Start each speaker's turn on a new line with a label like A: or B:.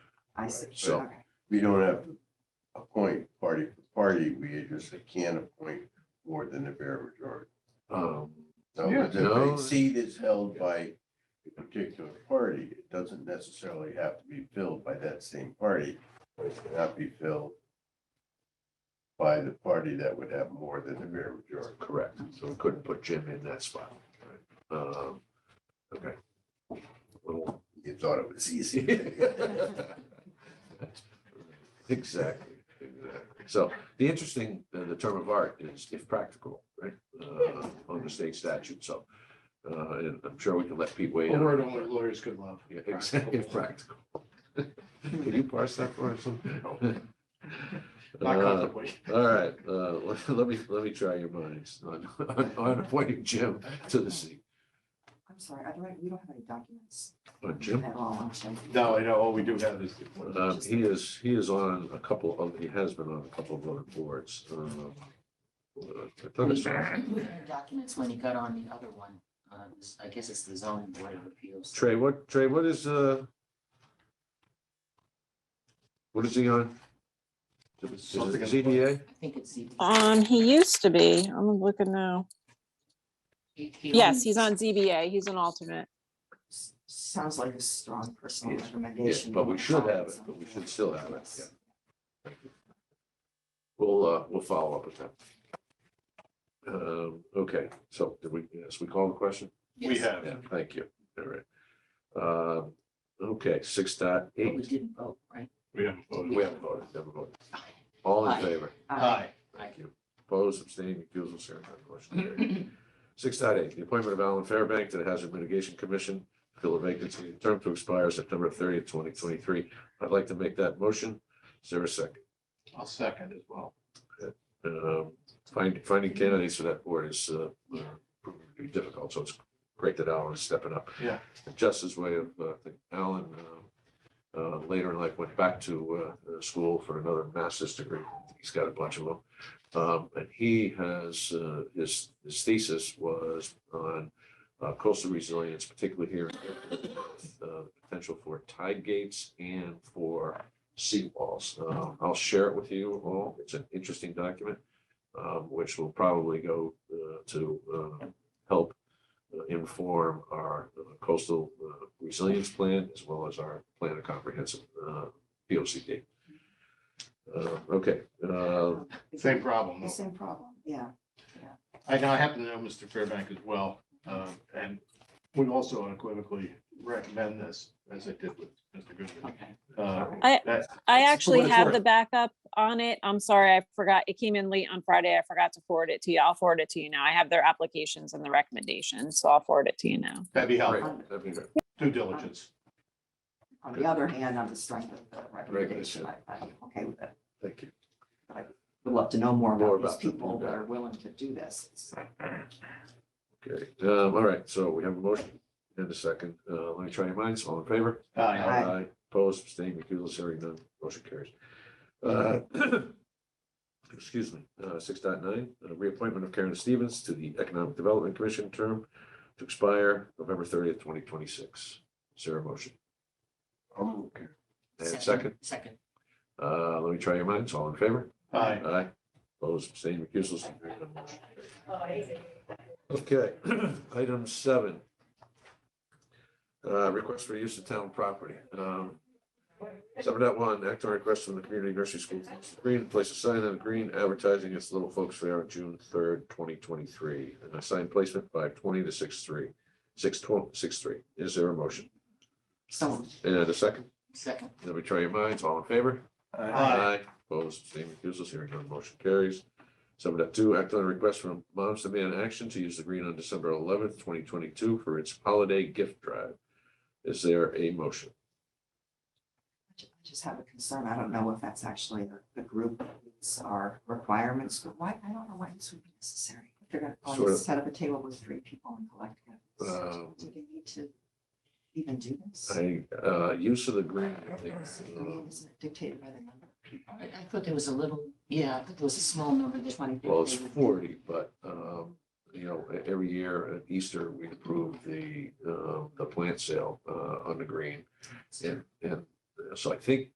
A: I see.
B: So-
A: Okay.
B: We don't have to appoint party for party, we just can't appoint more than the bare majority.
C: Um,
B: So
C: Yeah.
B: if
C: No.
B: a seat is held by a particular party, it doesn't necessarily have to be filled by that same party. but It cannot be filled by the party that would have more than the bare majority.
C: correct, so we couldn't put Jim in that spot. Um, okay. Little
B: You thought it was easy.
C: Exactly, exactly. So the interesting, uh, the term of art is if practical, right? Uh, On the state statute, so uh, and I'm sure we can let Pete weigh
D: A
C: in.
D: word only lawyers could love.
C: Yeah, exactly, if practical. Can you parse that for us?
D: Not
C: Uh,
D: comfortably.
C: All right, uh, let- let me, let me try your minds on, on- on appointing Jim to the seat.
A: I'm sorry, I don't, we don't have any documents
C: Uh, Jim?
A: at all, actually.
D: No, I know, all we do have is.
C: Um, he is, he is on a couple of, he has been on a couple of other boards. um, uh, I thought
E: We
C: it's-
E: had Documents when he got on the other one, uh, this- I guess it's the zoning board of appeals.
C: Trey, what, Trey, what is, uh? What is he on? Is it
D: Something in the-
C: ZDA?
E: I think it's the.
F: Um, he used to be. I'm looking now.
E: he- he
F: Yes,
E: only-
F: he's on ZBA. He's an alternate.
A: S- Sounds like a strong personal
C: Yes,
A: recommendation.
C: but we should have it, but we should still have it, yeah. We'll, uh, we'll follow up with that. Um, okay, so did we, yes, we call the question?
D: We
E: Yes,
D: have.
C: Yeah, thank you. All right. Uh, okay, six dot
E: But we
C: eight. Oh,
E: didn't vote, right?
D: We have.
C: We haven't voted, never voted. All in favor?
A: Uh,
D: Hi.
E: Aye.
C: Thank you. Opposed, abstaining, recusal, hearing none, motion carried. Six dot eight, the appointment of Alan Fairbank to the Hazard Mitigation Commission, fill a vacancy, term to expire September thirtieth, twenty twenty-three. I'd like to make that motion. Is there a second?
D: I'll second as well.
C: Um, find- Finding candidates for that board is uh, uh, proving to be difficult, so it's great that Alan is stepping up.
D: Yeah.
C: And Just his way of, uh, I think Alan uh, uh, later in life went back to uh, uh, school for another master's degree. He's got a bunch of them. Um, And he has, uh, his his thesis was on uh, coastal resilience, particularly here, uh, the potential for tide gates and for seawalls. Um, I'll share it with you all. It's an interesting document, um, which will probably go uh, to uh, help uh, inform our coastal uh, resilience plan as well as our plan of comprehensive uh, POCD. Uh, Okay, uh,
D: Same problem.
A: The
D: though.
A: same problem, yeah.
D: I know, I happen to know Mr. Fairbank as well, uh, and we also unequivocally recommend this, as I did with Mr. Goodman.
E: Okay.
D: Uh,
F: I-
D: that-
F: I
D: It's for
F: actually
D: what it's
F: have
D: worth.
F: the backup on it. I'm sorry, I forgot. It came in late on Friday. I forgot to forward it to you. I'll forward it to you now. I have their applications and the recommendations, so I'll forward it to you now.
D: That'd be
C: great.
D: helpful,
C: That'd be great.
D: due diligence.
A: On the other hand, on the strength of the recommendation,
C: Recommendation.
A: I- I'm okay with it.
C: Thank you.
A: Would love to know more
C: More
A: about
C: about
A: these
C: them,
A: people
C: yeah.
A: that are willing to do this. It's-
C: Okay, um, all right, so we have a motion and a second. Uh, Let me try your minds. All in favor?
D: Uh,
A: Aye.
C: Opposed, abstaining, recusals, hearing none, motion carries. Uh, Excuse me, uh, six dot nine, reappointment of Karen Stevens to the Economic Development Commission term to expire November thirtieth, twenty twenty-six. Is there a motion?
B: I'm okay.
C: And second,
E: Second.
C: uh, let me try your minds, all in favor?
D: Aye.
C: Aye. Opposed, abstaining, recusals, hearing none, motion Okay, item seven. Uh, request for use of town property. Um, Seven dot one, act on request from the community nursery school, green, place a sign on the green advertising its Little Folks Fair on June third, twenty twenty-three. And a sign placement five twenty to six three, six twelve, six three. Is there a motion?
A: So,
C: And a second?
E: Second.
C: Let me try your minds. All in favor?
D: Aye.
C: Opposed, abstaining, recusals, hearing none, motion carries. Seven dot two, act on a request from Moms Demand Action to use the green on December eleventh, twenty twenty-two for its holiday gift drive. Is there a motion?
A: I ju- I just have a concern. I don't know if that's actually the- the group that meets our requirements, but why, I don't know why this would be necessary. If they're going
C: Sort
A: to
C: of-
A: set up a table with three people and collect
C: Um,
A: it, do they need to even do this?
C: I, uh, use of the green, I think,
A: I
C: uh,
A: mean, Isn't it dictated by the number of people?
E: I, I thought there was a little, yeah, I thought there was a small number that
A: Twenty.
C: well, it's forty, but, um, you know, e- every year at Easter, we approve um, the, uh, the plant sale, uh, on the green. And, and so I think